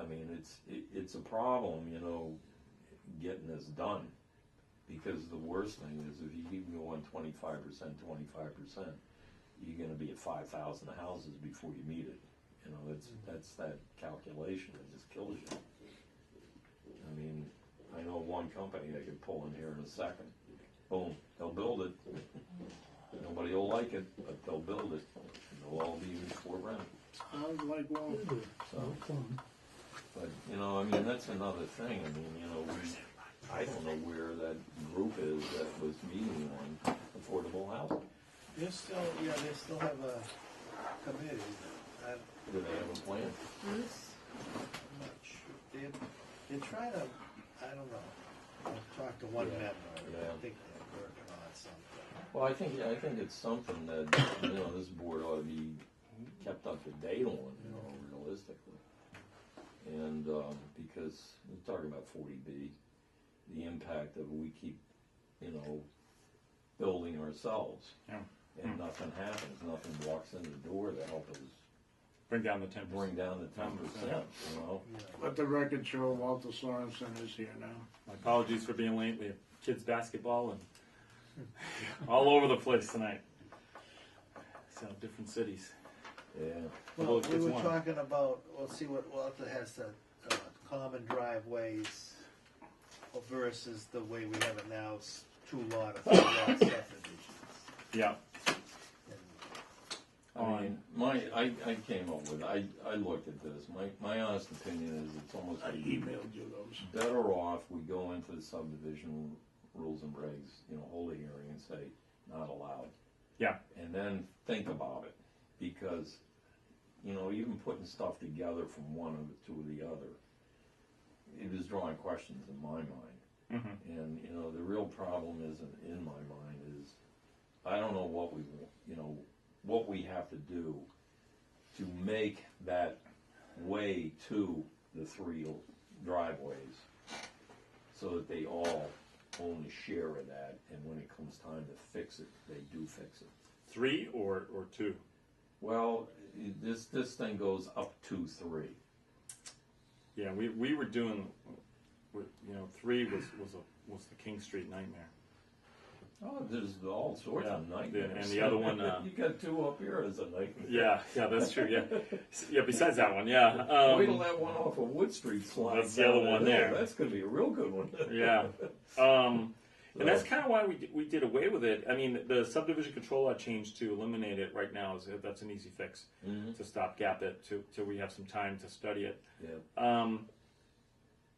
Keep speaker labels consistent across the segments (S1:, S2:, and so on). S1: I mean, it's, it, it's a problem, you know, getting this done. Because the worst thing is if you keep going twenty-five percent, twenty-five percent, you're gonna be at five thousand houses before you meet it. You know, that's, that's that calculation that just kills you. I mean, I know one company they could pull in here in a second. Boom, they'll build it. Nobody will like it, but they'll build it, and they'll all be used for rent.
S2: Sounds like well,
S1: So, but, you know, I mean, that's another thing, I mean, you know, we, I don't know where that group is that was meeting on affordable housing.
S2: they're still, yeah, they still have a committee. I'm
S1: Do they have a plan?
S2: not sure. They're, they're trying to, I don't know. I've talked to one
S1: Yeah, yeah.
S2: member. I think they're working on something.
S1: Well, I think, I think it's something that, you know, this board ought to be kept up to date on, you know, realistically. And, um, because we're talking about forty B, the impact of we keep, you know, building ourselves.
S3: Yeah.
S1: And nothing happens, nothing walks in the door to help us
S3: Bring down the ten
S1: bring
S3: percent.
S1: down the ten percent, you know?
S4: Let the record show Walter Sorensen is here now.
S3: My apologies for being late. We have kids basketball and all over the place tonight. So different cities.
S1: Yeah,
S3: Although
S2: Well,
S3: it
S2: we
S3: gets
S2: were
S3: one.
S2: talking about, we'll see what Walter has to, uh, common driveways versus the way we have it now, s- two lot or three lot subdivisions.
S3: Yeah.
S2: And
S1: I mean, my, I, I came up with, I, I looked at this, my, my honest opinion is it's almost
S4: I
S1: like
S4: emailed you those.
S1: better off we go into the subdivision rules and regs, you know, hold a hearing and say, not allowed.
S3: Yeah.
S1: And then think about it, because, you know, even putting stuff together from one of- to the other, it was drawing questions in my mind.
S3: Mhm.
S1: And, you know, the real problem isn't in my mind is, I don't know what we, wa- you know, what we have to do to make that way to the three driveways so that they all own a share of that, and when it comes time to fix it, they do fix it.
S3: Three or, or two?
S1: Well, i- this, this thing goes up to three.
S3: Yeah, we, we were doing, we- you know, three was, was a, was the King Street nightmare.
S1: Oh, there's all sorts of
S3: Yeah,
S1: nightmares.
S3: and the other one, uh,
S1: You got two up here as a nightmare.
S3: Yeah, yeah, that's true, yeah. Yeah, besides that one, yeah.
S1: Wait till
S3: Um,
S1: that one off of Wood Street slides.
S3: That's the other
S1: down
S3: one
S1: hill.
S3: there.
S1: That's gonna be a real good one.
S3: yeah. Um, and
S1: Uh.
S3: that's kind of why we, di- we did away with it. I mean, the subdivision control law change to eliminate it right now is that's an easy fix
S1: Mm-hmm.
S3: to stop gap it to till we have some time to study it.
S1: Yeah,
S3: Um,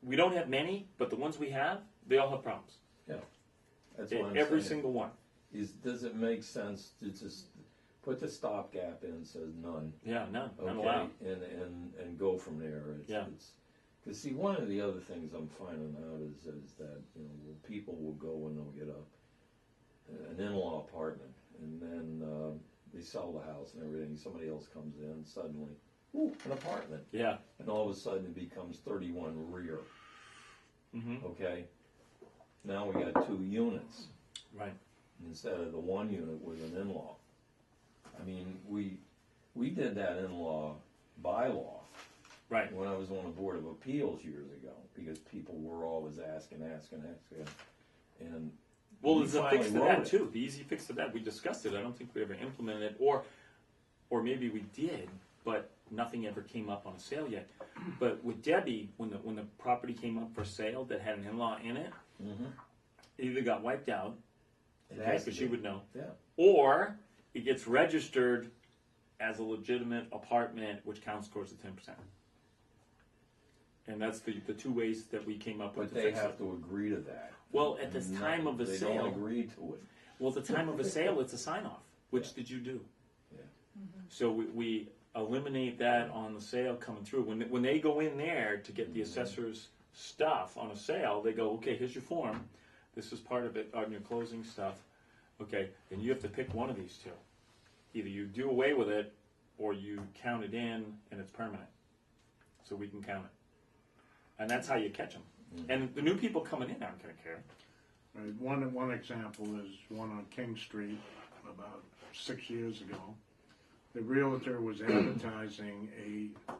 S3: we don't have many, but the ones we have, they all have problems.
S1: yeah. That's what I'm
S3: E, Every
S1: saying.
S3: single one.
S1: Is, does it make sense to just put the stopgap in, says none?
S3: Yeah, no, not
S1: okay,
S3: allowed.
S1: and, and, and go from there. It's,
S3: Oh, Yeah.
S1: It's, Cause see, one of the other things I'm finding out is, is that, you know, well, people will go and they'll get a, an in-law apartment and then, uh, they sell the house and everything, somebody else comes in suddenly, ooh, an apartment.
S3: Yeah,
S1: And all of a sudden it becomes thirty-one rear.
S3: Mhm.
S1: Okay? Now we got two units
S3: right.
S1: instead of the one unit with an in-law. I mean, we, we did that in-law bylaw
S3: Right.
S1: when I was on the Board of Appeals years ago, because people were always asking, asking, asking, and.
S3: Well,
S1: we
S3: there's a
S1: finally
S3: fix to
S1: wrote
S3: that
S1: it.
S3: too. The easy fix to that. We discussed it. I don't think we ever implemented it, or, or maybe we did, but nothing ever came up on a sale yet. But with Debbie, when the when the property came up for sale that had an in-law in it, it either got wiped out,
S1: Mm-hmm. It
S3: okay,
S1: has to
S3: because she
S1: be.
S3: would know,
S1: Yeah,
S3: or it gets registered as a legitimate apartment, which counts towards the ten percent. And that's the the two ways that we came up with.
S1: but
S3: to
S1: they
S3: fix it.
S1: have to agree to that.
S3: Well, at this
S1: No,
S3: time of a
S1: they
S3: sale.
S1: don't agree to it.
S3: Well, at the time of a sale, it's a sign off, which did you do?
S1: Yeah.
S3: So we, we eliminate that on the sale coming through. When, when they go in there to get the assessor's stuff on a sale, they go, okay, here's your form. This is part of it on your closing stuff. Okay, and you have to pick one of these two. Either you do away with it or you count it in and it's permanent. So we can count it. And that's how you catch them. And the new people coming in aren't going to care.
S4: Right, One, one example is one on King Street about six years ago. The realtor was advertising a